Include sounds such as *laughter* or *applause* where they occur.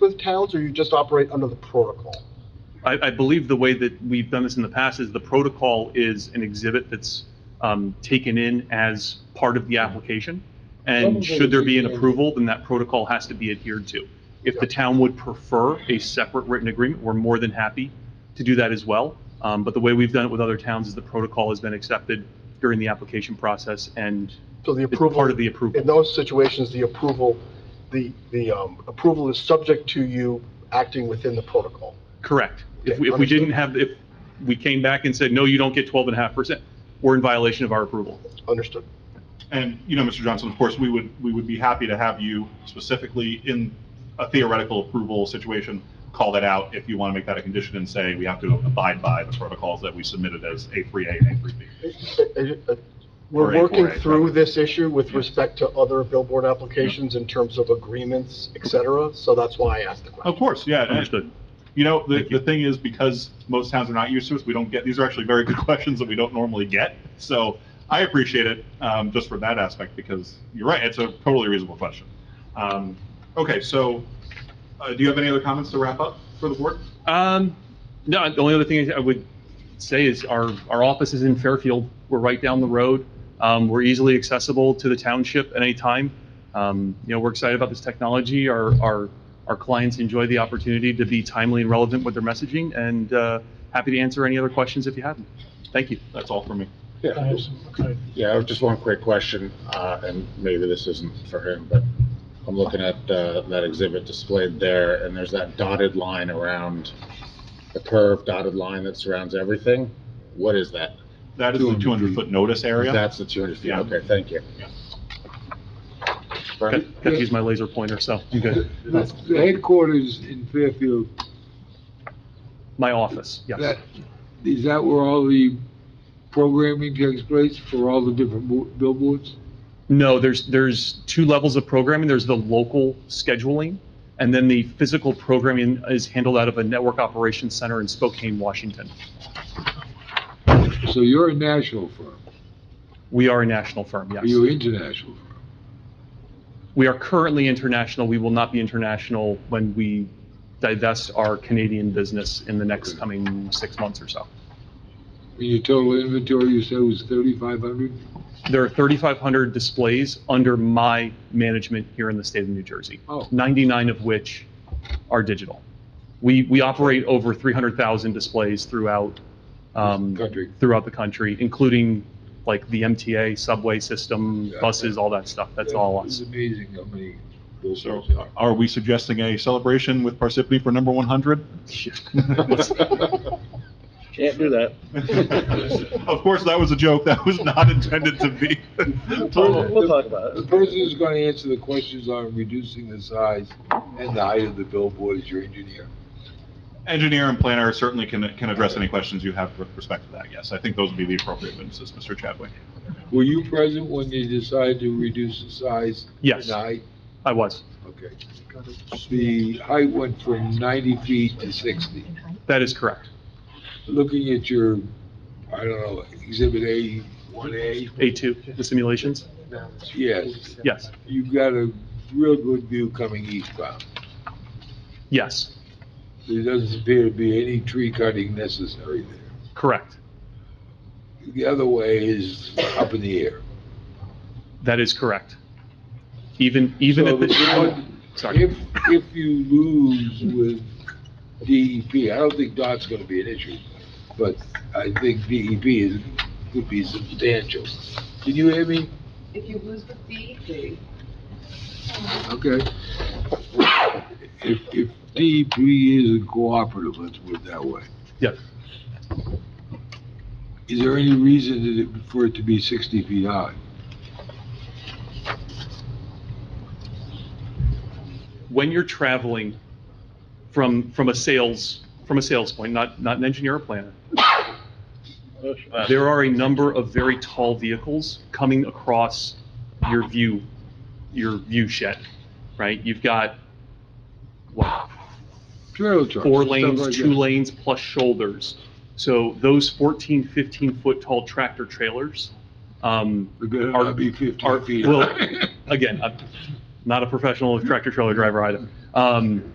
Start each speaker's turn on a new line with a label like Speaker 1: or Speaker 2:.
Speaker 1: with towns, or you just operate under the protocol?
Speaker 2: I, I believe the way that we've done this in the past is the protocol is an exhibit that's um, taken in as part of the application. And should there be an approval, then that protocol has to be adhered to. If the town would prefer a separate written agreement, we're more than happy to do that as well. Um, But the way we've done it with other towns is the protocol has been accepted during the application process and
Speaker 1: So the
Speaker 2: it's
Speaker 1: approval.
Speaker 2: part of the approval.
Speaker 1: In those situations, the approval, the, the um, approval is subject to you acting within the protocol.
Speaker 2: Correct. If
Speaker 1: Okay,
Speaker 2: we, if we
Speaker 1: understood.
Speaker 2: didn't have, if we came back and said, no, you don't get 12 and a half percent, we're in violation of our approval.
Speaker 1: Understood?
Speaker 3: And, you know, Mr. Johnson, of course, we would, we would be happy to have you specifically in a theoretical approval situation, call that out if you want to make that a condition and say we have to abide by the protocols that we submitted as A3A and A3B. Or
Speaker 1: We're
Speaker 3: A4A,
Speaker 1: working through
Speaker 3: probably.
Speaker 1: this issue with
Speaker 3: Yeah.
Speaker 1: respect to other billboard applications in terms of agreements, et cetera, so that's why I asked the question.
Speaker 3: Of course, yeah. and-
Speaker 2: Understood.
Speaker 3: You know, the,
Speaker 2: Thank you.
Speaker 3: the thing is, because most towns are not used to us, we don't get, these are actually very good *laughs* questions that we don't normally get. So I appreciate it, um, just for that aspect, because you're right, it's a totally reasonable question. Um, okay, so, uh, do you have any other comments to wrap up for the board?
Speaker 2: Um, no, the only other thing I would say is our, our office is in Fairfield. We're right down the road. Um, we're easily accessible to the township at any time. Um, you know, we're excited about this technology. Our, our, our clients enjoy the opportunity to be timely and relevant with their messaging and, uh, happy to answer any other questions if you have them. Thank you.
Speaker 3: That's all for me.
Speaker 4: Yeah, yeah, I have just one quick question, uh, and maybe this isn't for him, but I'm looking at, uh, that exhibit displayed there, and there's that dotted line around, the curved dotted line that surrounds everything. What is that?
Speaker 3: That is the
Speaker 4: 200 feet.
Speaker 3: 200-foot notice area.
Speaker 4: That's the 200 feet.
Speaker 3: Yeah.
Speaker 4: Okay, thank you.
Speaker 3: Yeah.
Speaker 4: Bernie?
Speaker 2: Got got to use my laser pointer, so I'm good.
Speaker 5: The the headquarters in Fairfield,
Speaker 2: My office, yes.
Speaker 5: that, is that where all the programming takes place for all the different bo- billboards?
Speaker 2: No, there's, there's two levels of programming. There's the local scheduling, and then the physical programming is handled out of a network operations center in Spokane, Washington.
Speaker 5: So you're a national firm,
Speaker 2: We are a national firm,
Speaker 5: or you're
Speaker 2: yes.
Speaker 5: international firm?
Speaker 2: We are currently international. We will not be international when we divest our Canadian business in the next coming six months or so.
Speaker 5: And your total inventory, you said was thirty-five hundred?
Speaker 2: There are 3,500 displays under my management here in the state of New Jersey.
Speaker 5: Oh.
Speaker 2: 99 of which are digital. We, we operate over 300,000 displays throughout, um,
Speaker 5: Country.
Speaker 2: throughout the country, including like the MTA subway system,
Speaker 5: Yeah.
Speaker 2: buses, all that stuff. That's all
Speaker 5: It's
Speaker 2: us.
Speaker 5: amazing how many
Speaker 3: So
Speaker 5: billboards there are.
Speaker 3: are we suggesting a celebration with Parsippany for number 100?
Speaker 6: Can't do that.
Speaker 3: Of course, that was a joke. That was not intended to be.
Speaker 6: We'll, we'll talk about
Speaker 5: The
Speaker 6: it.
Speaker 5: person who's gonna answer the questions on reducing the size and the height of the billboard is your engineer.
Speaker 3: Engineer and planner certainly can, can address any questions you have with respect to that, yes. I think those would be the appropriate witnesses, Mr. Chadwick.
Speaker 5: Were you present when they decided to reduce the size?
Speaker 2: Yes.
Speaker 5: And height?
Speaker 2: I was.
Speaker 5: Okay. The height went from 90 feet to 60.
Speaker 2: That is correct.
Speaker 5: Looking at your, I don't know, Exhibit A, 1A,
Speaker 2: A2, the simulations?
Speaker 5: yes,
Speaker 2: Yes,
Speaker 5: you've got a real good view coming eastbound.
Speaker 2: yes,
Speaker 5: There doesn't appear to be any tree cutting necessary there.
Speaker 2: correct.
Speaker 5: The other way is up in the air.
Speaker 2: That is correct. Even, even
Speaker 5: So
Speaker 2: at the,
Speaker 5: what-
Speaker 2: sorry.
Speaker 5: If, if you lose with DEP, I don't think DOT's gonna be an issue, but I think DEP is, could be substantial. Can you hear me?
Speaker 7: If you lose the fee,
Speaker 5: Okay. If, if DEP is cooperative, let's put it that way,
Speaker 2: Yes.
Speaker 5: is there any reason that it- for it to be sixty feet high?
Speaker 2: when you're traveling from, from a sales, from a sales point, not, not an engineer or planner, there are a number of very tall vehicles coming across your view, your view shed, right? You've got, what,
Speaker 5: Trailer trucks.
Speaker 2: four
Speaker 5: stuff like
Speaker 2: lanes, two
Speaker 5: that.
Speaker 2: lanes plus shoulders. So those 14, 15-foot tall tractor trailers um,
Speaker 5: It better
Speaker 2: are-
Speaker 5: not be
Speaker 2: are-
Speaker 5: fifteen feet
Speaker 2: well,
Speaker 5: high.
Speaker 2: Again, I'm not a professional tractor trailer driver either. Um,